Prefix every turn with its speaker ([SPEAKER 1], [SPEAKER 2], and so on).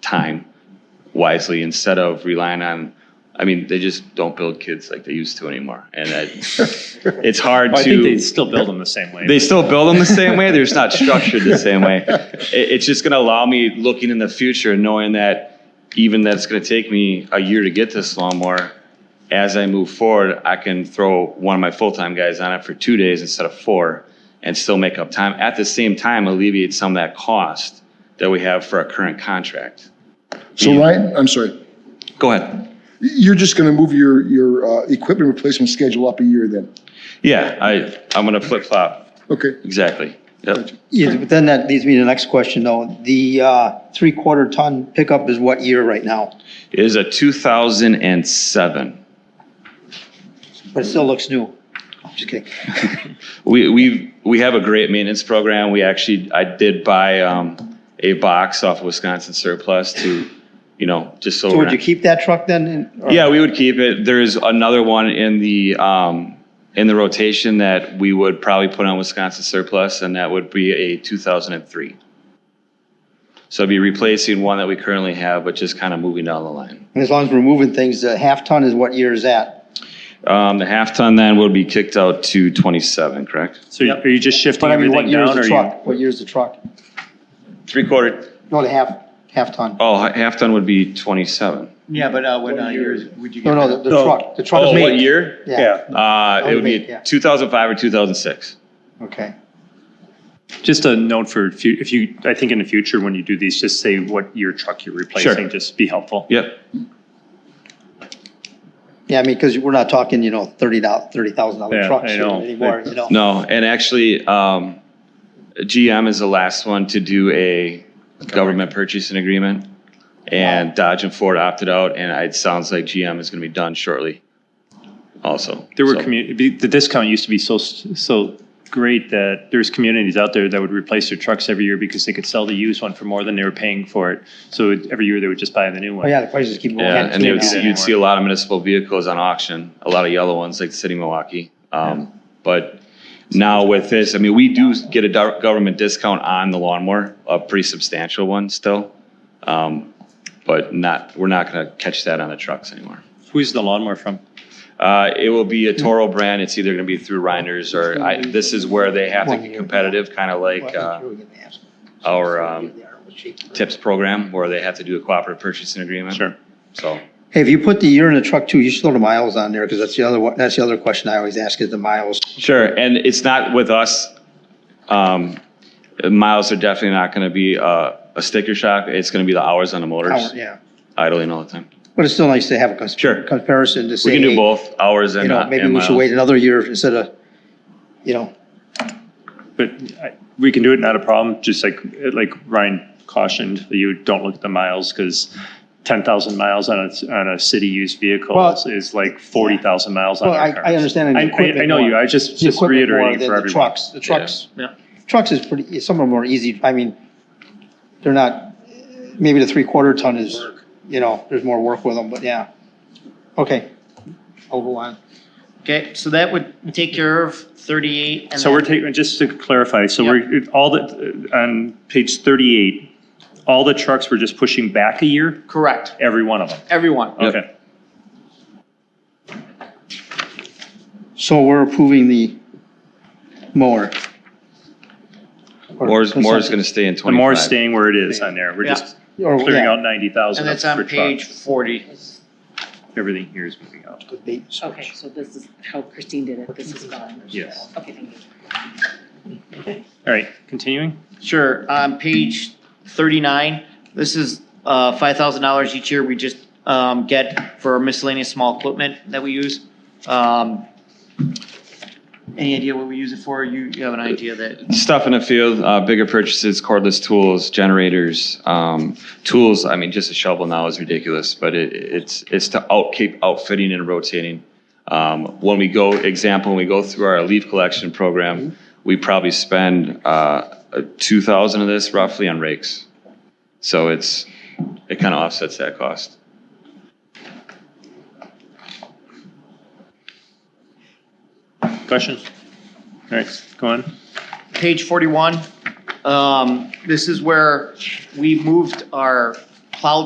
[SPEAKER 1] time wisely instead of relying on. I mean, they just don't build kids like they used to anymore, and that, it's hard to.
[SPEAKER 2] I think they still build them the same way.
[SPEAKER 1] They still build them the same way. They're just not structured the same way. It, it's just going to allow me looking in the future, and knowing that even that's going to take me a year to get this lawnmower. As I move forward, I can throw one of my full time guys on it for two days instead of four, and still make up time. At the same time, alleviate some of that cost that we have for our current contract.
[SPEAKER 3] So Ryan, I'm sorry,
[SPEAKER 1] Go ahead.
[SPEAKER 3] you're just going to move your, your uh, equipment replacement schedule up a year then?
[SPEAKER 1] Yeah, I I'm going to flip flop
[SPEAKER 3] Okay.
[SPEAKER 1] exactly. Yep.
[SPEAKER 4] Yeah, but then that leads me to the next question, though. The uh, three-quarter ton pickup is what year right now?
[SPEAKER 1] It is a 2007.
[SPEAKER 4] But it still looks new. I'm Just kidding.
[SPEAKER 1] We, we've, we have a great maintenance program. We actually, I did buy, um, a box off of Wisconsin surplus to, you know, just so.
[SPEAKER 4] So
[SPEAKER 1] we're
[SPEAKER 4] would you
[SPEAKER 1] not-
[SPEAKER 4] keep that truck then? and- or-
[SPEAKER 1] Yeah, we would keep it. There is another one in the, um, in the rotation that we would probably put on Wisconsin surplus and that would be a two thousand and three. So it'd be replacing one that we currently have, but just kind of moving down the line.
[SPEAKER 4] And as long as we're moving things, the half-ton is what year is that?
[SPEAKER 1] Um, the half ton then would be kicked out to twenty-seven, correct?
[SPEAKER 2] So are you just shifting
[SPEAKER 4] But I mean, what
[SPEAKER 2] everything
[SPEAKER 4] year is
[SPEAKER 2] down
[SPEAKER 4] the
[SPEAKER 2] or you?
[SPEAKER 4] truck? What year is the truck?
[SPEAKER 1] Three quarter,
[SPEAKER 4] No, the half, half-ton.
[SPEAKER 1] oh, half ton would be twenty-seven.
[SPEAKER 5] Yeah, but uh, when, uh, years would you
[SPEAKER 4] No,
[SPEAKER 5] get
[SPEAKER 4] no,
[SPEAKER 5] that?
[SPEAKER 4] the- the
[SPEAKER 2] No.
[SPEAKER 4] truck, the truck.
[SPEAKER 1] Oh,
[SPEAKER 4] is
[SPEAKER 1] what year?
[SPEAKER 4] Yeah,
[SPEAKER 1] Uh, it would
[SPEAKER 4] Elevate,
[SPEAKER 1] be
[SPEAKER 4] yeah.
[SPEAKER 1] 2005 or 2006.
[SPEAKER 4] okay.
[SPEAKER 2] Just a note for, fu- if you, I think in the future, when you do these, just say what year truck you're replacing, just be helpful.
[SPEAKER 1] Yep.
[SPEAKER 4] Yeah, I mean, because we're not talking, you know, thirty dollars, thirty thousand dollar
[SPEAKER 2] Yeah,
[SPEAKER 4] trucks
[SPEAKER 2] I know.
[SPEAKER 4] anymore, you know?
[SPEAKER 1] No, and actually, um, GM is the last one to do a government purchasing agreement. And Dodge and Ford opted out, and it sounds like GM is going to be done shortly also.
[SPEAKER 2] There were
[SPEAKER 1] So-
[SPEAKER 2] community, the discount used to be so, s- so great that there's communities out there that would replace their trucks every year because they could sell the used one for more than they were paying for it. So every year they would just buy the new
[SPEAKER 4] Oh,
[SPEAKER 2] one.
[SPEAKER 4] yeah, the prices keep going.
[SPEAKER 1] Yeah,
[SPEAKER 2] can't
[SPEAKER 1] and they
[SPEAKER 2] do
[SPEAKER 1] would,
[SPEAKER 2] that
[SPEAKER 1] see- you'd see a lot of municipal vehicles on auction, a lot of yellow ones like the city of Milwaukee. Um, but now with this, I mean, we do get a dar- government discount on the lawnmower, a pretty substantial one still. Um, but not, we're not gonna catch that on the trucks anymore.
[SPEAKER 2] Who's the lawnmower from?
[SPEAKER 1] Uh, it will be a Toro brand. It's either gonna be through Reiners or I, this is where they have to get competitive, kind of like, uh, our, um, tips program where they have to do a cooperative purchasing agreement.
[SPEAKER 2] Sure.
[SPEAKER 1] So.
[SPEAKER 4] Hey, if you put the year in the truck too, you should throw the miles on there, because that's the other, one- that's the other question I always ask is the miles.
[SPEAKER 1] Sure, and it's not with us. Um, Miles are definitely not going to be uh, a sticker shock. It's going to be the hours on the motors,
[SPEAKER 4] Hour, Yeah,
[SPEAKER 1] idling all the time.
[SPEAKER 4] but it's still nice to have a cons-
[SPEAKER 1] Sure.
[SPEAKER 4] comparison to say.
[SPEAKER 1] We can do
[SPEAKER 4] hey,
[SPEAKER 1] both, hours
[SPEAKER 4] You
[SPEAKER 1] and
[SPEAKER 4] know,
[SPEAKER 1] uh,
[SPEAKER 4] maybe
[SPEAKER 1] and
[SPEAKER 4] we should wait
[SPEAKER 1] miles.
[SPEAKER 4] another year instead of, you know,
[SPEAKER 2] But I- we can do it, not a problem, just like, like Ryan cautioned, you don't look at the miles, because ten thousand miles on a, on a city used vehicle
[SPEAKER 4] Well-
[SPEAKER 2] is- is like forty thousand miles on
[SPEAKER 4] Well,
[SPEAKER 2] our
[SPEAKER 4] I- I
[SPEAKER 2] cars.
[SPEAKER 4] understand the
[SPEAKER 2] I- I- I
[SPEAKER 4] equipment
[SPEAKER 2] know you,
[SPEAKER 4] more.
[SPEAKER 2] I just,
[SPEAKER 4] the
[SPEAKER 2] just
[SPEAKER 4] equipment more
[SPEAKER 2] reiterating
[SPEAKER 4] than
[SPEAKER 2] for
[SPEAKER 4] the
[SPEAKER 2] everyone.
[SPEAKER 4] trucks, the trucks.
[SPEAKER 2] Yeah.
[SPEAKER 4] Trucks is pretty, some of them are easy, I mean, they're not, maybe the three-quarter ton is, you know, there's more work with them, but yeah. Okay, I'll go on.
[SPEAKER 5] Okay, so that would take care of thirty-eight and
[SPEAKER 2] So we're
[SPEAKER 5] then,
[SPEAKER 2] taking, just to clarify, so we're, all the, on page thirty-eight, all the trucks were just pushing back a year,
[SPEAKER 5] correct,
[SPEAKER 2] every one of them,
[SPEAKER 5] everyone.
[SPEAKER 1] Yep.
[SPEAKER 2] okay.
[SPEAKER 4] So we're approving the mower.
[SPEAKER 1] Moore's, Moore's going to stay in
[SPEAKER 2] The more
[SPEAKER 1] 25.
[SPEAKER 2] staying where it is on there, we're
[SPEAKER 5] Yeah.
[SPEAKER 2] just
[SPEAKER 4] Or,
[SPEAKER 2] clearing
[SPEAKER 4] yeah.
[SPEAKER 2] out ninety thousand
[SPEAKER 5] And that's
[SPEAKER 2] for
[SPEAKER 5] on page
[SPEAKER 2] trucks,
[SPEAKER 5] forty.
[SPEAKER 2] everything here is moving out,
[SPEAKER 6] Okay, so this is how Christine did it, this is gone.
[SPEAKER 2] yes,
[SPEAKER 6] Okay, thank you.
[SPEAKER 2] all right, continuing?
[SPEAKER 5] Sure, on page thirty-nine, this is, uh, five thousand dollars each year we just, um, get for miscellaneous small equipment that we use. Um, any idea what we use it for? You, you have an idea that?
[SPEAKER 1] Stuff in the field, uh, bigger purchases, cordless tools, generators, um, tools. I mean, just a shovel now is ridiculous, but it, it's, it's to out, keep outfitting and rotating. Um, when we go, example, when we go through our leaf collection program, we probably spend, uh, two thousand of this roughly on rakes. So it's, it kind of offsets that cost.
[SPEAKER 2] Questions? All right, go on.
[SPEAKER 5] page 41, um, this is where we moved our plow